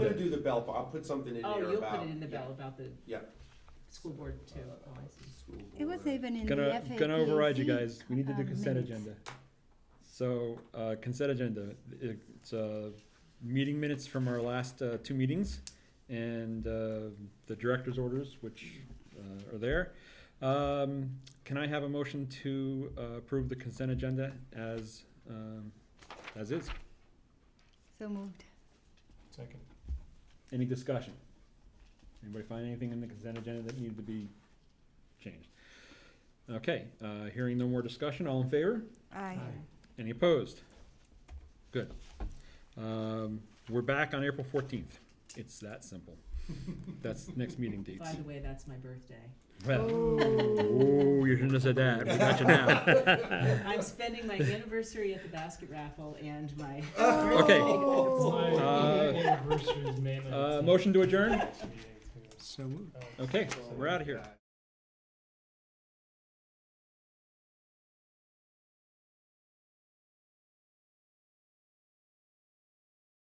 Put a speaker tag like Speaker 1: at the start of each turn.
Speaker 1: I'm gonna do the bell, I'll put something in
Speaker 2: Oh,
Speaker 1: there
Speaker 2: you'll
Speaker 1: about.
Speaker 2: put it in the bill about the
Speaker 1: Yeah. Uh,
Speaker 2: school board too. Oh, I see.
Speaker 1: School
Speaker 3: It was
Speaker 1: board.
Speaker 3: even in the
Speaker 4: Gonna,
Speaker 3: FAQC.
Speaker 4: gonna override you guys, we need to do
Speaker 3: uh,
Speaker 4: consent
Speaker 3: minutes.
Speaker 4: agenda. So, uh, consent agenda, it's, uh, meeting minutes from our last, uh, two meetings, and, uh, the director's orders, which, uh, are there. Um, can I have a motion to, uh, approve the consent agenda as, um, as is?
Speaker 3: So moved.
Speaker 5: Second.
Speaker 4: Any discussion? Anybody find anything in the consent agenda that needed to be changed? Okay, uh, hearing no more discussion, all in favor?
Speaker 3: Aye.
Speaker 4: Any opposed? Good. Um, we're back on April fourteenth. It's that simple. That's next meeting dates.
Speaker 2: By the way, that's my birthday.
Speaker 4: Well, oh, you shouldn't have said that. We got you now.
Speaker 2: I'm spending my anniversary at the basket raffle and my.
Speaker 4: Okay.
Speaker 5: My
Speaker 4: Uh,
Speaker 5: anniversary is May
Speaker 4: Uh,
Speaker 5: 19th.
Speaker 4: motion to adjourn?
Speaker 5: Next meeting, too.
Speaker 6: So moved.
Speaker 5: Um,
Speaker 4: Okay, we're out of here.